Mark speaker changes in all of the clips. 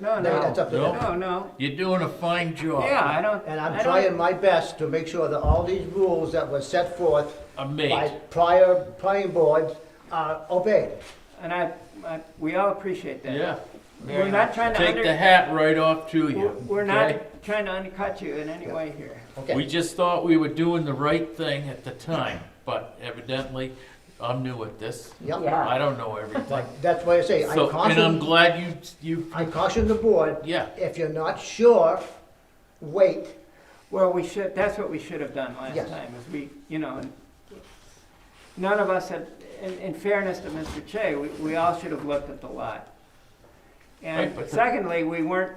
Speaker 1: No,
Speaker 2: No,
Speaker 1: no,
Speaker 2: that's up to them.
Speaker 1: no, no.
Speaker 3: You're doing a fine job.
Speaker 1: Yeah, I don't.
Speaker 2: And
Speaker 1: I
Speaker 2: I'm
Speaker 1: don't-
Speaker 2: trying my best to make sure that all these rules that were set forth
Speaker 3: Are
Speaker 2: by
Speaker 3: made.
Speaker 2: prior planning boards are obeyed.
Speaker 1: And I, I, we all appreciate that.
Speaker 3: Yeah.
Speaker 1: We're not trying to
Speaker 3: Take the
Speaker 1: under,
Speaker 3: hat right off to you.
Speaker 1: we're- we're
Speaker 3: okay?
Speaker 1: not trying to undercut you in any way here.
Speaker 3: We
Speaker 2: Okay,
Speaker 3: just thought we were doing the right thing at the time, but evidently, I'm new at this.
Speaker 2: yeah,
Speaker 1: Yeah.
Speaker 3: I don't know everything.
Speaker 2: but that's why I say, I
Speaker 3: So, and I'm
Speaker 2: caution,
Speaker 3: glad you, you,
Speaker 2: I caution the board,
Speaker 3: yeah.
Speaker 2: if you're not sure, wait.
Speaker 1: Well, we should, that's what we should have done last
Speaker 2: Yes.
Speaker 1: time, is we, you know, and none of us had, in, in fairness to Mr. Che, we, we all should have looked at the lot. And
Speaker 3: Right, but-
Speaker 1: secondly, we weren't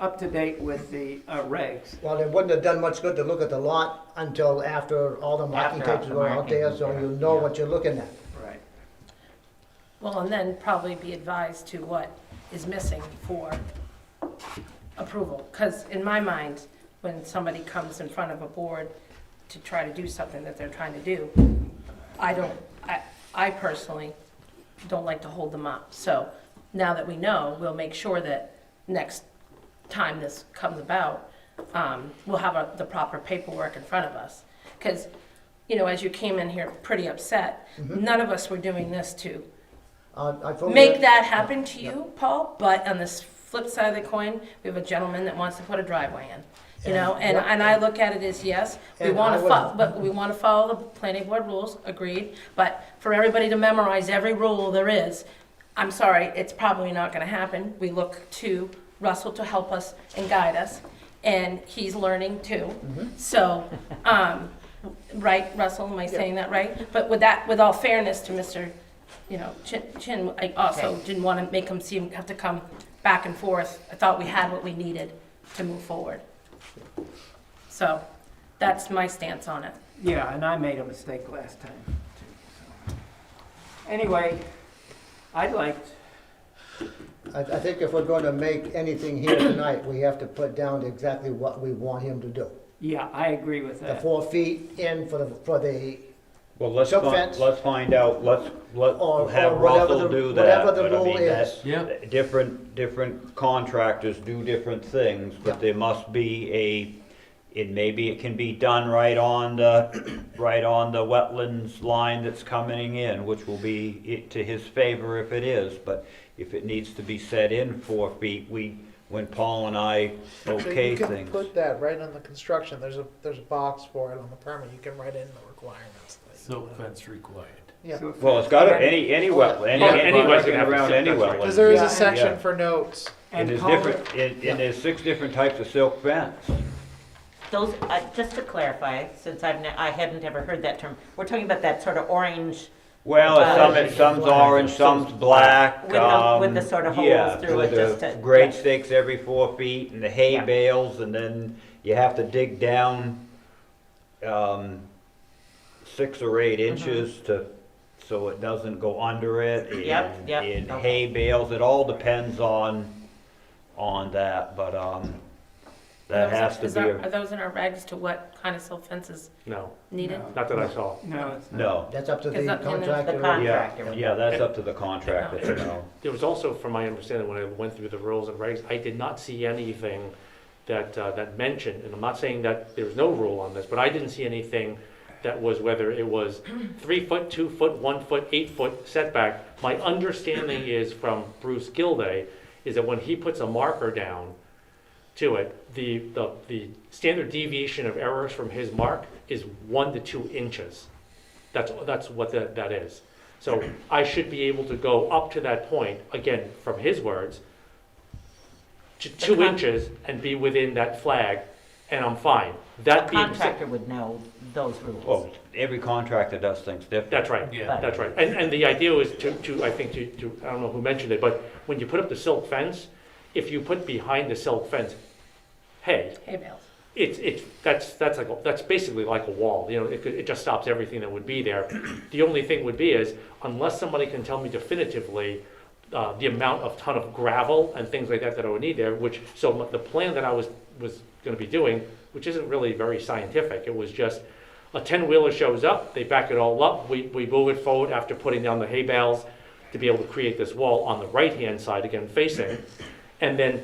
Speaker 1: up to date with the uh, regs.
Speaker 2: Well, it wouldn't have done much good to look at the lot until after all the marking
Speaker 3: After
Speaker 2: tapes
Speaker 3: the
Speaker 2: were out there,
Speaker 3: marking,
Speaker 2: so
Speaker 3: yeah,
Speaker 2: you know
Speaker 3: yeah.
Speaker 2: what you're looking at.
Speaker 1: Right.
Speaker 4: Well, and then probably be advised to what is missing for approval. Because in my mind, when somebody comes in front of a board to try to do something that they're trying to do, I don't, I, I personally don't like to hold them up. So now that we know, we'll make sure that next time this comes about, um, we'll have a- the proper paperwork in front of us. Because, you know, as you came in here pretty upset, none of us were doing this to
Speaker 2: Uh, I told you
Speaker 4: make that happen to you, Paul, but on this flip side of the coin, we have a gentleman that wants to put a driveway in. You know, and,
Speaker 2: Yeah.
Speaker 4: and I look at it as, yes, we
Speaker 2: And I
Speaker 4: wanna
Speaker 2: would-
Speaker 4: fo, but we wanna follow the planning board rules, agreed, but for everybody to memorize every rule there is, I'm sorry, it's probably not gonna happen. We look to Russell to help us and guide us, and he's learning too.
Speaker 2: Mm-hmm.
Speaker 4: So, um, right, Russell, am I saying that right? But with that, with all fairness to Mr., you know, Chin, Chin, I also didn't want to make him seem, have to come back and forth. I thought we had what we needed to move forward. So, that's my stance on it.
Speaker 1: Yeah, and I made a mistake last time. too. so. Anyway, I'd like,
Speaker 2: I, I think if we're gonna make anything here tonight, we have to put down exactly what we want him to do.
Speaker 1: yeah, I agree with
Speaker 2: The
Speaker 1: that.
Speaker 2: four feet in for the, for the,
Speaker 5: Well, let's,
Speaker 2: Jump
Speaker 5: find-
Speaker 2: fence.
Speaker 5: let's find out, let's, let,
Speaker 2: Or- or
Speaker 5: have
Speaker 2: whatever
Speaker 5: Russell
Speaker 2: the-
Speaker 5: do that.
Speaker 2: whatever the
Speaker 5: but
Speaker 2: rule
Speaker 5: I mean, that-
Speaker 2: is.
Speaker 3: Yep.
Speaker 5: Different, different contractors do different things,
Speaker 2: Yeah.
Speaker 5: but there must be a, it maybe it can be done right on the, right on the wetlands line that's coming in, which will be it to his favor if it is, but if it needs to be set in four feet, we, when Paul and I
Speaker 6: So
Speaker 5: okay
Speaker 6: you can
Speaker 5: things.
Speaker 6: Put that right on the construction, there's a, there's a box for it on the permit, you can write in the requirements. that you
Speaker 3: Silt
Speaker 6: want.
Speaker 3: fence required.
Speaker 6: Yeah,
Speaker 1: So if-
Speaker 5: Well, it's gotta, any, any wetland, any,
Speaker 3: Yeah,
Speaker 5: any
Speaker 3: anybody's
Speaker 5: wetland
Speaker 3: gonna have to
Speaker 5: around
Speaker 3: set
Speaker 5: any
Speaker 3: that right.
Speaker 5: wetland.
Speaker 6: because there is
Speaker 1: Yeah,
Speaker 6: a
Speaker 1: and-
Speaker 6: section
Speaker 5: Yeah.
Speaker 6: for notes.
Speaker 5: And there's
Speaker 1: culvert-
Speaker 5: different, and, and there's six different types of silk fence.
Speaker 7: Those, uh, just to clarify, since I've, ne- I hadn't ever heard that term, we're talking about that sort of orange
Speaker 5: Well,
Speaker 7: Uh,
Speaker 5: some, it's- some's orange, some's black,
Speaker 7: With the-
Speaker 5: um.
Speaker 7: with the sort of holes
Speaker 5: yeah,
Speaker 7: through
Speaker 5: with
Speaker 7: it
Speaker 5: the
Speaker 7: just to-
Speaker 5: Grade
Speaker 7: yeah.
Speaker 5: stakes every four feet and the hay
Speaker 7: Yeah.
Speaker 5: bales, and then you have to dig down, um, six or eight
Speaker 7: Mm-hmm.
Speaker 5: inches to, so it doesn't go under it.
Speaker 7: Yep,
Speaker 5: and-
Speaker 7: yep,
Speaker 5: And hay
Speaker 7: okay.
Speaker 5: bales, it all depends on, on that, but, um, that
Speaker 4: Those are-
Speaker 5: has to
Speaker 4: is
Speaker 5: be,
Speaker 4: our-
Speaker 5: a-
Speaker 4: Are those in our regs to what kind of silt fences
Speaker 8: No,
Speaker 4: needed?
Speaker 1: No.
Speaker 8: not that I saw.
Speaker 1: No, it's not.
Speaker 5: no,
Speaker 2: that's up to
Speaker 4: Is
Speaker 2: the
Speaker 4: that- and then the
Speaker 2: contractor.
Speaker 7: con-
Speaker 5: yeah,
Speaker 7: Contractor.
Speaker 5: yeah, that's up to the contractor, you know.
Speaker 8: There was also, from my understanding, when I went through the rules and regs, I did not see anything that, uh, that mentioned, and I'm not saying that there was no rule on this, but I didn't see anything that was whether it was three foot, two foot, one foot, eight foot setback. My understanding is from Bruce Gilday, is that when he puts a marker down to it, the, the, the standard deviation of errors from his mark is one to two inches. That's, that's what that, that is. So I should be able to go up to that point, again, from his words, to two
Speaker 7: con-
Speaker 8: inches and be within that flag, and I'm fine. That being said,
Speaker 7: contractor would know those
Speaker 5: Well,
Speaker 7: rules.
Speaker 5: every contractor does things different.
Speaker 8: that's right,
Speaker 3: Yeah.
Speaker 8: that's right. And, and the idea was to, to, I think, to, to, I don't know who mentioned it, but when you put up the silk fence, if you put behind the silk fence, hey,
Speaker 4: Hay bales.
Speaker 8: it's it's that's that's like a, that's basically like a wall. You know, it could, it just stops everything that would be there. The only thing would be is unless somebody can tell me definitively uh, the amount of ton of gravel and things like that that I would need there. Which so m- the plan that I was was going to be doing, which isn't really very scientific. It was just a ten wheeler shows up, they back it all up, we we move it forward after putting down the hay bales to be able to create this wall on the right hand side again facing, and then